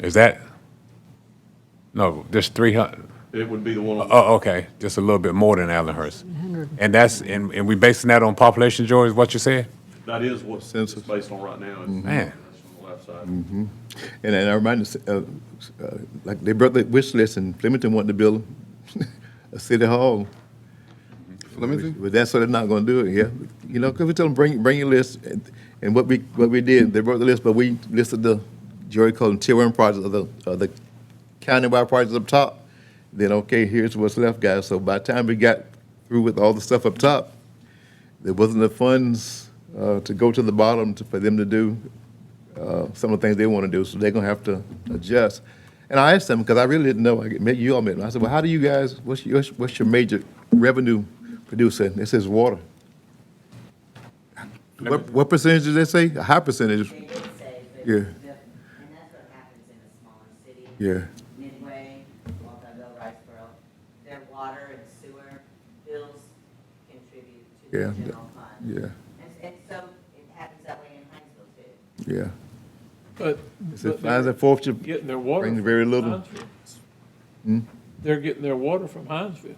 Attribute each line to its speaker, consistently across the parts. Speaker 1: Is that? No, just three hundred,
Speaker 2: It would be the
Speaker 3: Uh,
Speaker 2: one,
Speaker 1: oh, okay, just a little bit more than Allenhurst. And that's, and, and we basing that on population, George, is what you said?
Speaker 2: that is what it's
Speaker 3: Census.
Speaker 2: based on right now. It's-
Speaker 1: Man.
Speaker 2: That's on the left side.
Speaker 3: And, and I remind us, uh, uh, like they brought the wish list and Flemington wanted to build a city hall. Flemington? But that's what they're not gonna do it here. You know, cause we tell them, bring, bring your list. And- And what we, what we did, they brought the list, but we listed the, Jerry called them tier one projects of the, of the countywide projects up top. Then, okay, here's what's left, guys. So by the time we got through with all the stuff up top, there wasn't the funds, uh, to go to the bottom to, for them to do uh, some of the things they want to do, so they're gonna have to adjust. And I asked them, because I really didn't know, I met you all met, I said, well, how do you guys, what's your, what's your major revenue producer? And it says water. What, what percentage did they say? A high percentage,
Speaker 4: They did say, but.
Speaker 3: Yeah.
Speaker 4: the- And that's what happens in a smaller city.
Speaker 3: yeah.
Speaker 4: Midway, Waltonville, Riceboro, their water and sewer bills contribute to
Speaker 3: Yeah,
Speaker 4: the
Speaker 3: the-
Speaker 4: general fund.
Speaker 3: Yeah,
Speaker 4: And, and so it happens that way in Hinesville too.
Speaker 3: yeah.
Speaker 5: But,
Speaker 3: It says
Speaker 5: but
Speaker 3: fines
Speaker 5: they're
Speaker 3: and forfeiture,
Speaker 5: getting their water.
Speaker 3: brings
Speaker 5: from
Speaker 3: very little. Hmm?
Speaker 5: Hinesville. They're getting their water from Hinesville,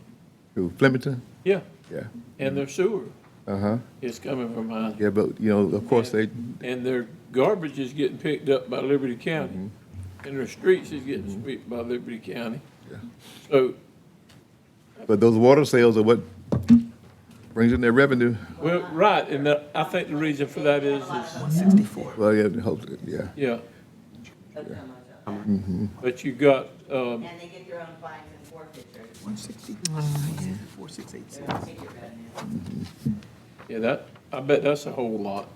Speaker 3: to Flemington,
Speaker 5: yeah,
Speaker 3: yeah,
Speaker 5: and their sewer
Speaker 3: uh-huh,
Speaker 5: is coming from Hinesville.
Speaker 3: yeah, but, you know, of course, they,
Speaker 5: And their garbage is getting picked up by Liberty County,
Speaker 3: Mm-hmm.
Speaker 5: and their streets is getting swept by Liberty County. So,
Speaker 3: but those water sales are what brings in their revenue.
Speaker 5: well, right, and that, I think the reason for that is, is,
Speaker 3: Well, yeah, hope- yeah,
Speaker 5: yeah,
Speaker 4: But so much of that.
Speaker 5: but you got, um,
Speaker 4: And they get their own fines and forfeitures,
Speaker 6: 160, 4686.
Speaker 4: their own ticket revenue.
Speaker 5: yeah, that, I bet that's a whole lot.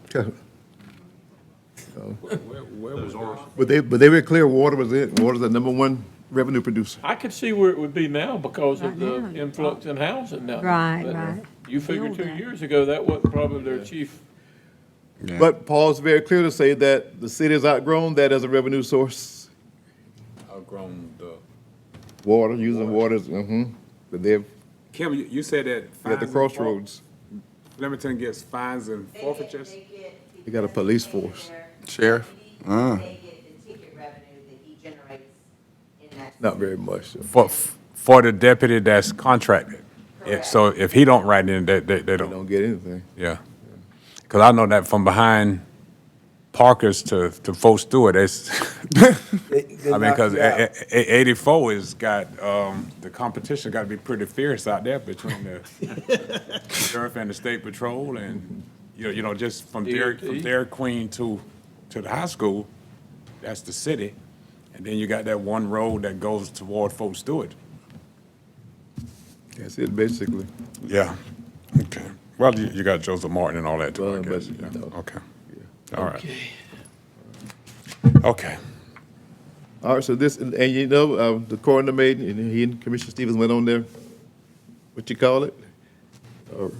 Speaker 3: But they, but they were clear water was it, water's the number one revenue producer.
Speaker 5: I could see where it would be now because of
Speaker 7: Right
Speaker 5: the
Speaker 7: now.
Speaker 5: influx in housing now.
Speaker 7: Right,
Speaker 5: But uh,
Speaker 7: right.
Speaker 5: You figure
Speaker 7: Feel
Speaker 5: two
Speaker 7: that.
Speaker 5: years ago, that wasn't probably their chief,
Speaker 3: But Paul's very clear to say that the city has outgrown that as a revenue source.
Speaker 1: Outgrown the.
Speaker 3: Water, using water, mm-hmm, but they've,
Speaker 8: Kim, you, you said that.
Speaker 3: they're at
Speaker 8: fines
Speaker 3: the
Speaker 8: and
Speaker 3: crossroads.
Speaker 8: for- Flemington gets fines and
Speaker 4: They get-
Speaker 8: forfeitures.
Speaker 4: They get.
Speaker 3: They got a
Speaker 4: because
Speaker 3: police
Speaker 4: they get
Speaker 3: force.
Speaker 4: their
Speaker 6: Sheriff?
Speaker 4: community,
Speaker 6: Uh.
Speaker 4: They get the ticket revenue that he generates in that.
Speaker 3: Not very much. though.
Speaker 1: For, for the deputy that's contracted. If, so if he don't write in, they, they, they
Speaker 3: They
Speaker 1: don't.
Speaker 3: don't get anything.
Speaker 1: Yeah. Because I know that from behind Parkers to, to Fort Stewart, it's, I mean, because 84 is got, um, the competition got to be pretty fierce out there between the sheriff and the state patrol and, you know, you know, just from Dairy, from
Speaker 5: DOT.
Speaker 1: Dairy Queen to, to the high school, that's the city. And then you got that one road that goes toward Fort Stewart.
Speaker 3: That's it, basically.
Speaker 1: Yeah. Okay. Well, you, you got Joseph Martin and all that too, I
Speaker 3: Well,
Speaker 1: guess.
Speaker 3: but,
Speaker 1: Yeah.
Speaker 3: no.
Speaker 1: Okay. All right. Okay.
Speaker 3: All right, so this, and and you know, uh, the coroner made, and he and Commissioner Stevens went on their, what you call it? A-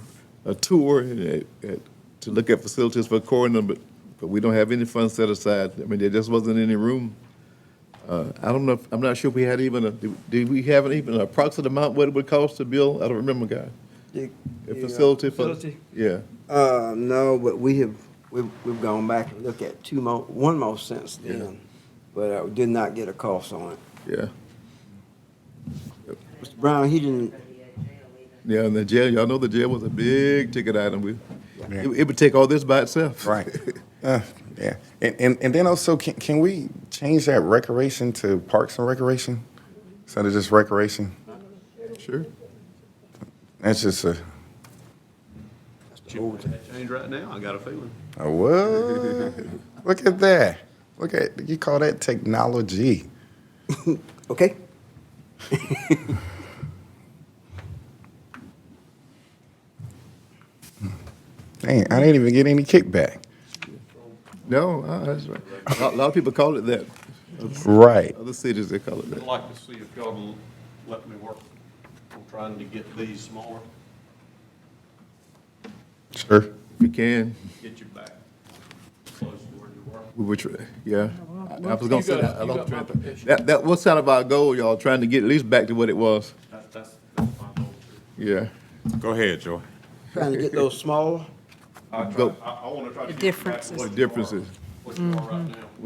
Speaker 3: A tour and, uh, uh, to look at facilities for coroner, but, but we don't have any funds set aside. I mean, there just wasn't any room. Uh, I don't know, if- I'm not sure if we had even, a did did we have an even approximate amount what it would cost to build? I don't remember, guy.
Speaker 6: You-
Speaker 3: A
Speaker 6: you, uh,
Speaker 3: facility for,
Speaker 6: facility?
Speaker 3: yeah.
Speaker 6: Uh, no, but we have, we've, we've gone back and looked at two more, one more since then, but I did not get a cost on it.
Speaker 3: Yeah,
Speaker 6: Mr. Brown, he didn't,
Speaker 4: But the, uh, jail leaving.
Speaker 3: yeah, and the jail, y'all know the jail was a big ticket item. We, it it would take all this by itself.
Speaker 9: Right. Uh, yeah. And, and, and then also, can, can we change that recreation to parks and recreation instead of just recreation?
Speaker 3: Sure.
Speaker 9: That's just a,
Speaker 2: That change right now, I got a feeling.
Speaker 9: a what? Look at that. Look at, you call that technology.
Speaker 6: okay?
Speaker 9: Dang, I didn't even get any kickback.
Speaker 3: No, uh, that's right. A lot, lot of people call it that.
Speaker 9: Right.
Speaker 3: Other cities, they call it
Speaker 2: I'd
Speaker 3: that.
Speaker 2: like to see if y'all will let me work on trying to get these smaller,
Speaker 9: Sure.
Speaker 3: If you can,
Speaker 2: get you back close to where you were.
Speaker 3: we would try, yeah. I I was gonna say that, I
Speaker 5: You got-
Speaker 3: lost
Speaker 5: you got
Speaker 3: track.
Speaker 5: my petition.
Speaker 3: That, that was kind of our goal, y'all, trying to get at least back to what it was.
Speaker 2: That- That's, that's my goal too.
Speaker 3: Yeah.
Speaker 1: Go ahead, Joy.
Speaker 6: Trying to get those smaller.
Speaker 2: I,
Speaker 3: Go.
Speaker 2: try- I, I want to try to.
Speaker 7: The
Speaker 2: get you back to
Speaker 7: differences. Mm-hmm.
Speaker 2: what you are- What
Speaker 3: Differences.
Speaker 2: you are right now.